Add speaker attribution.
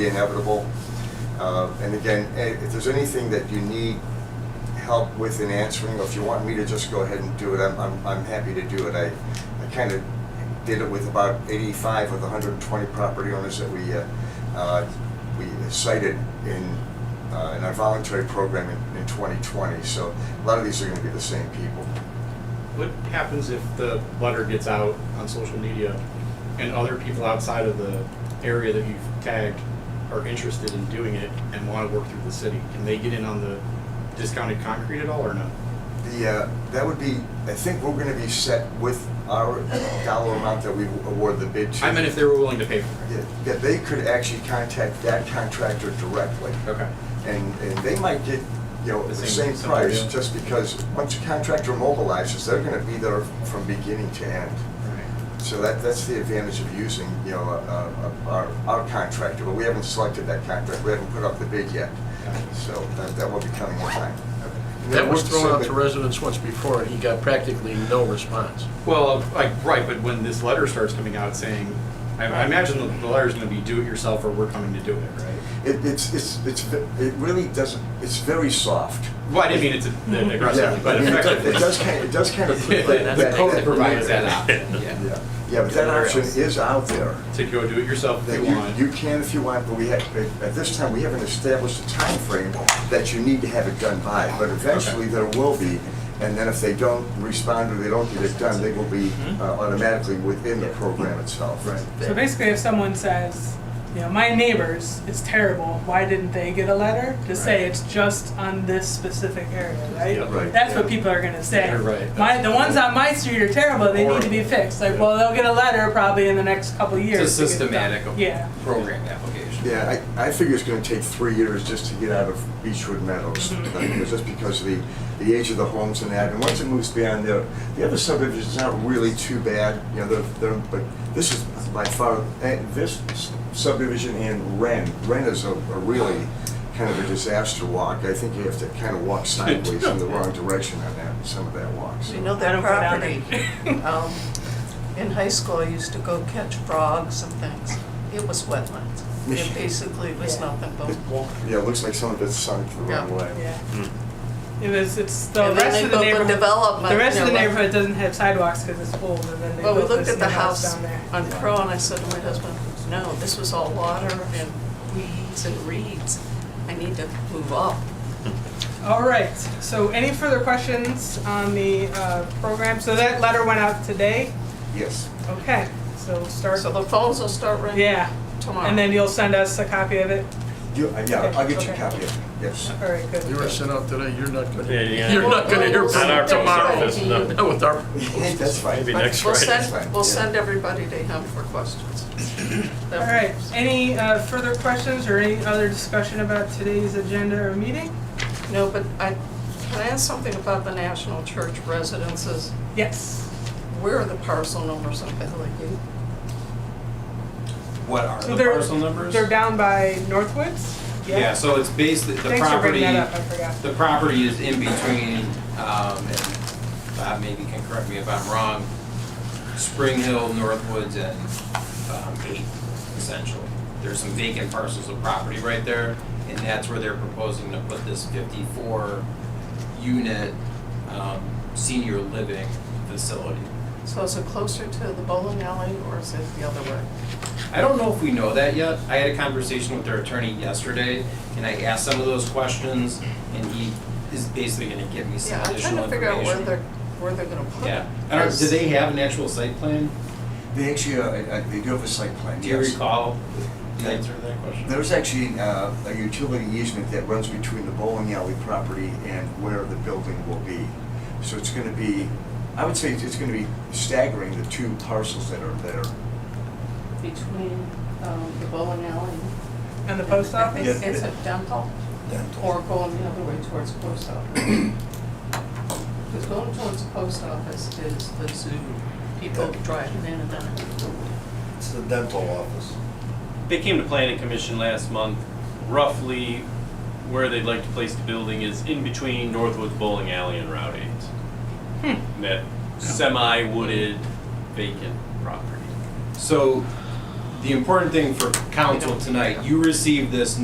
Speaker 1: be inevitable. Uh, And again, eh, if there's anything that you need help with in answering, or if you want me to just go ahead and do it, I'm, I'm, I'm happy to do it. I, I kind of did it with about 85 of the 120 property owners that we, uh, uh, we cited in, uh, in our voluntary program in, in 2020. So a lot of these are going to be the same people.
Speaker 2: What happens if the letter gets out on social media and other people outside of the area that you've tagged are interested in doing it and want to work through the city? Can they get in on the discounted concrete at all or no?
Speaker 1: The, uh, that would be, I think we're going to be set with our dollar amount that we award the bid to.
Speaker 2: I meant if they were willing to pay for it.
Speaker 1: Yeah, yeah, they could actually contact that contractor directly,
Speaker 2: Okay.
Speaker 1: and, and they might get, you know,
Speaker 2: The
Speaker 1: the
Speaker 2: same-
Speaker 1: same
Speaker 2: same
Speaker 1: price,
Speaker 2: deal.
Speaker 1: just because once a contractor mobilizes, they're gonna be there from beginning to end.
Speaker 2: Right.
Speaker 1: So that, that's the advantage of using, you know, uh, uh, our, our contractor, but we haven't selected that contract, we haven't put up the bid yet, so that, that will be coming in time. And then
Speaker 3: That was
Speaker 1: what's the
Speaker 3: thrown out
Speaker 1: same-
Speaker 3: to residents once before, and he got practically no response.
Speaker 2: Well, like, right, but when this letter starts coming out saying, I, I imagine the, the letter's going to be do it yourself or we're coming to do it, right?
Speaker 1: It, it's, it's, it's, ve- it really doesn't, it's very soft.
Speaker 2: Well, I didn't mean it's a-
Speaker 1: Yeah,
Speaker 2: aggressive, but
Speaker 1: it does-
Speaker 2: effectively.
Speaker 1: It does kind, it does kind of.
Speaker 2: Yeah,
Speaker 1: that-
Speaker 2: The
Speaker 1: that-
Speaker 2: code
Speaker 1: that-
Speaker 2: provides that option, yeah.
Speaker 1: Yeah, yeah, but that option is out there.
Speaker 2: To go do it yourself if
Speaker 1: That
Speaker 2: you want.
Speaker 1: you, you can if you want, but we have, but at this time, we haven't established a time frame that you need to have it done by. But eventually, there will be, and then if they don't respond or they don't get it done, they will be uh, automatically within the program itself. Right.
Speaker 4: So basically, if someone says, you know, my neighbors, it's terrible, why didn't they get a letter? To say it's just on this specific area,
Speaker 2: Yeah.
Speaker 4: right?
Speaker 1: Right.
Speaker 4: That's what people are gonna say.
Speaker 2: You're right.
Speaker 4: My, the ones on my street are terrible, they need to be
Speaker 2: Horrible.
Speaker 4: fixed. Like,
Speaker 2: Yeah.
Speaker 4: well, they'll get a letter probably in the next couple of years.
Speaker 5: It's a
Speaker 4: to get it done.
Speaker 5: systematic
Speaker 4: Yeah.
Speaker 5: program application.
Speaker 1: Yeah, I, I figure it's gonna take three years just to get out of Beechwood Meadows,
Speaker 4: Mm-hmm.
Speaker 1: like, you know, just because of the, the age of the homes and that, and once it moves beyond there, the other subdivision's not really too bad, you know, they're, they're, but this is by far, and this subdivision and Ren, Ren is a, a really kind of a disaster walk, I think you have to kind of walk sideways in the wrong direction on that, some of that walk, so.
Speaker 6: We know
Speaker 4: I
Speaker 6: that
Speaker 4: don't go down
Speaker 6: property. Um, In high school, I used to go catch frogs and things. It was wetlands. It basically was
Speaker 4: Yeah.
Speaker 6: nothing but water.
Speaker 1: Yeah, it looks like some of it's sunk the wrong
Speaker 6: Yeah.
Speaker 1: way.
Speaker 4: Yeah. It was, it's, the
Speaker 6: And then
Speaker 4: rest of
Speaker 6: they
Speaker 4: the
Speaker 6: built the
Speaker 4: neighborhood.
Speaker 6: development,
Speaker 4: The rest of the
Speaker 6: you know, like-
Speaker 4: neighborhood doesn't have sidewalks because it's old, and then they
Speaker 6: Well, we
Speaker 4: built
Speaker 6: looked
Speaker 4: this
Speaker 6: at the
Speaker 4: new house
Speaker 6: house
Speaker 4: down there.
Speaker 6: on Crow and I said to my husband, no, this was all water and weeds and reeds. I need to move up.
Speaker 4: All right, so any further questions on the uh, program? So that letter went out today?
Speaker 1: Yes.
Speaker 4: Okay, so we'll start,
Speaker 6: So the phones will start ringing
Speaker 4: yeah.
Speaker 6: tomorrow.
Speaker 4: And then you'll send us a copy of it?
Speaker 1: You, yeah, I'll get you a
Speaker 4: Okay.
Speaker 1: copy of it, yes.
Speaker 4: All right, good.
Speaker 3: You were sent out today, you're not gonna,
Speaker 7: Yeah, yeah.
Speaker 3: you're not gonna hear
Speaker 7: Not
Speaker 3: from
Speaker 7: our
Speaker 3: him tomorrow.
Speaker 7: office, no.
Speaker 3: Not With our,
Speaker 1: That's fine.
Speaker 7: Maybe
Speaker 6: But
Speaker 7: next
Speaker 6: we'll
Speaker 7: Friday.
Speaker 6: send, we'll send everybody to him for questions.
Speaker 4: All right, any uh, further questions or any other discussion about today's agenda or meeting?
Speaker 6: No, but I, can I ask something about the National Church residences?
Speaker 4: Yes.
Speaker 6: Where are the parcel numbers on Valley Gate?
Speaker 5: What are
Speaker 4: So
Speaker 5: the
Speaker 4: they're-
Speaker 5: parcel numbers?
Speaker 4: They're down by Northwoods?
Speaker 5: Yeah, so it's based, the
Speaker 4: Thanks for bringing
Speaker 5: property,
Speaker 4: that up, I forgot.
Speaker 5: the property is in between, um, and Bob maybe can correct me if I'm wrong, Spring Hill, Northwoods, and, um, Eight, essentially. There's some vacant parcels of property right there, and that's where they're proposing to put this fifty-four unit, um, senior living facility.
Speaker 6: So is it closer to the bowling alley or is it the other way?
Speaker 5: I don't know if we know that yet. I had a conversation with their attorney yesterday, and I asked some of those questions, and he is basically gonna give me some
Speaker 6: Yeah, I'm trying
Speaker 5: additional
Speaker 6: to figure out where
Speaker 5: information.
Speaker 6: they're, where they're gonna put it.
Speaker 5: Yeah, I don't, do they have an actual site plan?
Speaker 1: They actually, uh, uh, they do have a site plan,
Speaker 5: Do you
Speaker 1: yes.
Speaker 5: recall the answer to that question?
Speaker 1: There's actually uh, a utility easement that runs between the bowling alley property and where the building will be. So it's gonna be, I would say it's- it's gonna be staggering, the two parcels that are there.
Speaker 6: Between, um, the bowling alley.
Speaker 4: And the post
Speaker 6: I think
Speaker 4: office?
Speaker 1: Yeah.
Speaker 6: it's a dental or going the other way towards the post office. Because going towards the post office is the zoo, people driving in and out.
Speaker 8: It's the dental office.
Speaker 7: They came to planning commission last month, roughly where they'd like to place the building is in between Northwoods Bowling Alley and Route Eight.
Speaker 3: Hmm.
Speaker 7: That semi-wooded vacant property.
Speaker 5: So the important thing for council tonight, you received this